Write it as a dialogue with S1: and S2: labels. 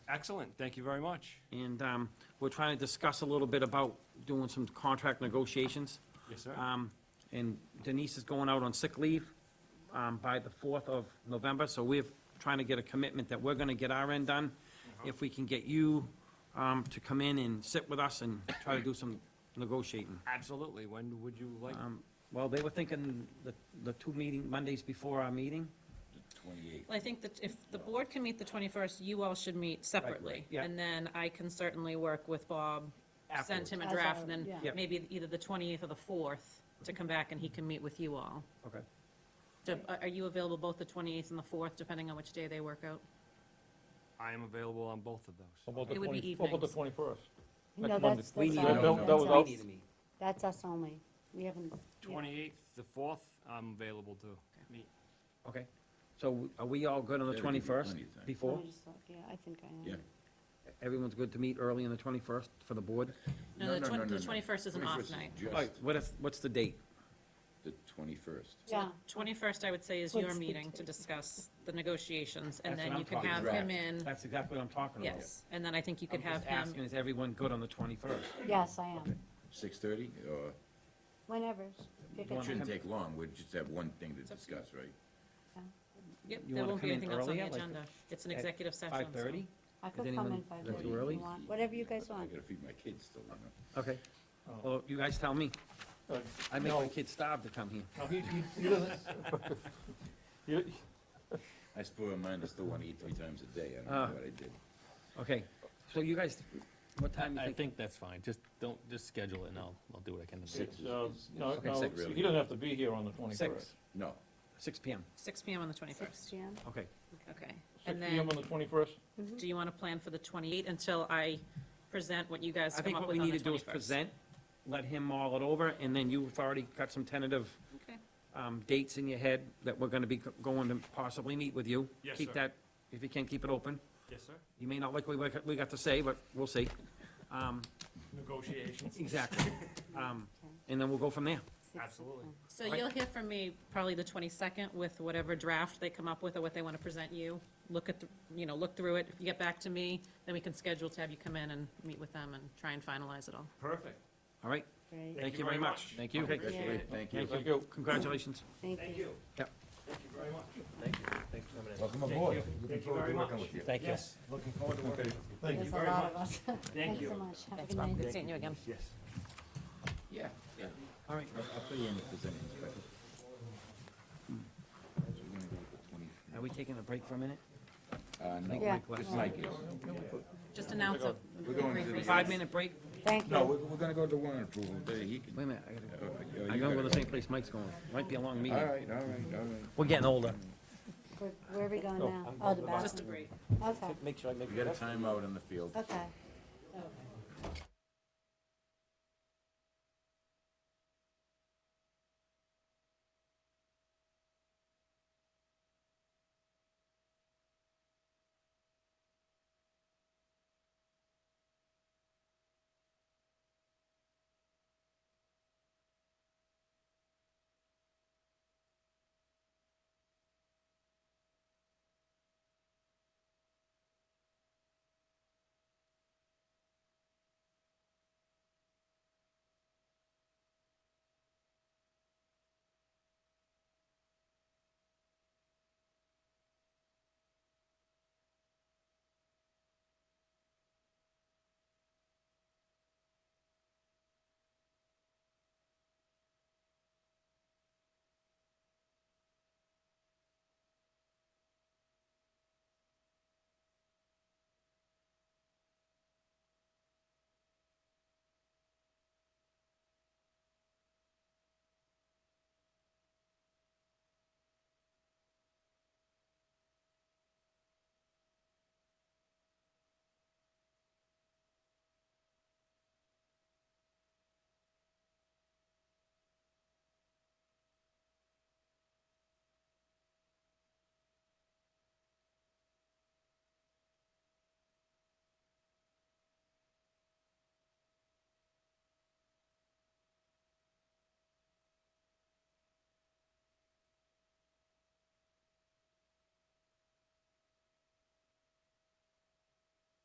S1: Excellent, thank you very much.
S2: And um, we're trying to discuss a little bit about doing some contract negotiations.
S1: Yes, sir.
S2: Um, And Denise is going out on sick leave um, by the 4th of November, so we're trying to get a commitment that we're going to get our end done. If we can get you um, to come in and sit with us and try to do some negotiating.
S1: Absolutely, when would you like?
S2: Um, Well, they were thinking the, the two meeting, Mondays before our meeting.
S3: Twenty-eight.
S4: Well, I think that if the board can meet the 21st, you all should meet separately.
S2: yeah.
S4: And then I can certainly work with Bob, send him a
S5: As
S4: draft,
S5: a-
S4: and then
S5: yeah.
S2: Yep.
S4: maybe either the 28th or the 4th to come back and he can meet with you all.
S2: Okay.
S4: So are- Are you available both the 28th and the 4th, depending on which day they work out?
S1: I am available on both of those.
S6: What about the
S4: It would be
S6: twenty, what about the
S4: evenings.
S6: twenty-first?
S5: No, that's,
S2: We
S5: that's
S2: need
S5: our-
S2: a-
S6: That- that was
S5: that's
S6: out-
S5: us. That's us only. We haven't. yeah.
S1: Twenty-eighth, the fourth, I'm available to meet.
S2: Okay. So are we all good on the
S3: Yeah, we can do
S2: 21st
S3: plenty of time.
S2: before?
S5: I just thought- Yeah, I think I am.
S3: Yeah.
S2: Everyone's good to meet early on the 21st for the board?
S4: No, the
S3: no, no,
S4: twen- the
S3: no.
S4: 21st is an off
S3: 21st is
S4: night.
S3: just
S2: What if, what's the date?
S3: The twenty-first.
S4: So
S5: Yeah.
S4: the 21st, I would say, is
S5: What's
S4: your
S5: the
S4: meeting to
S5: date?
S4: discuss the negotiations,
S2: That's
S4: and then
S2: what I'm
S4: you can
S2: talking
S4: have
S3: about.
S4: him in,
S2: That's exactly what I'm talking about.
S4: yes, and then I think you could
S2: I'm
S4: have
S2: just
S4: him.
S2: asking, is everyone good on the 21st?
S5: Yes, I am.
S3: Six-thirty, or,
S5: Whenever. Pick a
S2: wanna
S3: it shouldn't
S5: time.
S3: take long, we just have one thing to discuss, right?
S4: Yep,
S2: You
S4: there
S2: wanna
S4: won't be
S2: come in
S4: anything else on the
S2: earlier, like
S4: agenda. It's an
S2: at
S4: executive session. so-
S2: 5:30?
S5: I
S2: Is
S5: could
S2: anyone-
S5: come in
S2: is
S5: five
S2: that
S5: thirty
S2: too
S5: if
S2: early?
S5: you want, whatever you guys
S3: I
S5: want.
S3: gotta feed my kids still, you know.
S2: Okay.
S3: Oh.
S2: Well, you guys tell me. I make my kids starve to come here.
S6: You-
S3: I spoil mine, I still wanna eat three times a day, I
S2: Ah.
S3: don't know what I did.
S2: Okay, so you guys, what time
S7: I
S2: you think?
S7: think that's fine, just don't, just schedule it and I'll, I'll do what I can to do.
S3: Six
S6: it's,
S3: is-
S6: uh,
S3: is-
S6: No,
S3: is
S6: no,
S3: sick, really.
S6: he doesn't have to be here on the twenty-first.
S2: Six.
S3: No,
S2: 6 PM,
S4: Six PM on the 21st,
S5: Jan?
S2: okay.
S4: okay.
S6: Six
S4: And
S6: P M
S4: then,
S6: on the twenty-first?
S4: do you want to plan for the 28th until I present what you guys
S2: I
S4: come
S2: think
S4: up
S2: what
S4: with
S2: we
S4: on
S2: need to
S4: the
S2: do is
S4: 21st?
S2: present, let him mull it over, and then you've already got some tentative
S4: Okay.
S2: um, dates in your head that we're gonna be go- going to possibly meet with you.
S1: Yes,
S2: Keep
S1: sir.
S2: that, if you can, keep it open.
S1: Yes, sir.
S2: You may not like what we got- we got to say, but we'll see. Um,
S1: Negotiations.
S2: Exactly. Um, And then we'll go from there.
S5: Six
S1: Absolutely.
S5: o'clock.
S4: So
S2: Right.
S4: you'll hear from me probably the 22nd with whatever draft they come up with or what they want to present you. Look at, the you know, look through it. If you get back to me, then we can schedule to have you come in and meet with them and try and finalize it all.
S1: Perfect.
S2: All right?
S5: Great.
S2: Thank you very much.
S7: Thank you.
S2: Okay.
S3: that's
S5: Yeah.
S3: great, thank you.
S6: Thank you.
S2: Congratulations.
S5: Thank you.
S2: Yep.
S1: Thank you very much.
S3: Welcome aboard.
S1: Thank you very much.
S2: Thank you.
S1: Looking forward to working.
S5: There's a lot of us. Thanks
S1: you.
S5: so much. Have a good night.
S4: seeing you again.
S1: Yes.
S3: Yeah, yeah.
S2: All right.
S3: I'll, I'll fill you in if there's anything special.
S2: Hmm.
S3: So we're gonna go with the 20
S2: Are we taking a break for a minute?
S5: Yeah.
S3: Uh, no, just Mike is.
S4: Just announce it.
S3: We're going to the.
S2: Five-minute break?
S5: Thank
S3: No,
S5: you.
S3: we're, we're gonna go to warrant approval, but he can.
S2: Wait a minute, I gotta,
S3: oh, oh, you
S2: I gotta go to the
S3: gotta
S2: same place Mike's going. Might be a long
S3: go. All
S2: meeting.
S3: right, all right, all right.
S2: We're getting older.
S5: Where- Where are we going now? Oh, the
S4: Just a
S5: bathroom.
S4: break.
S5: Okay,
S2: Make sure I make.
S3: We got a timeout on the field.
S5: okay.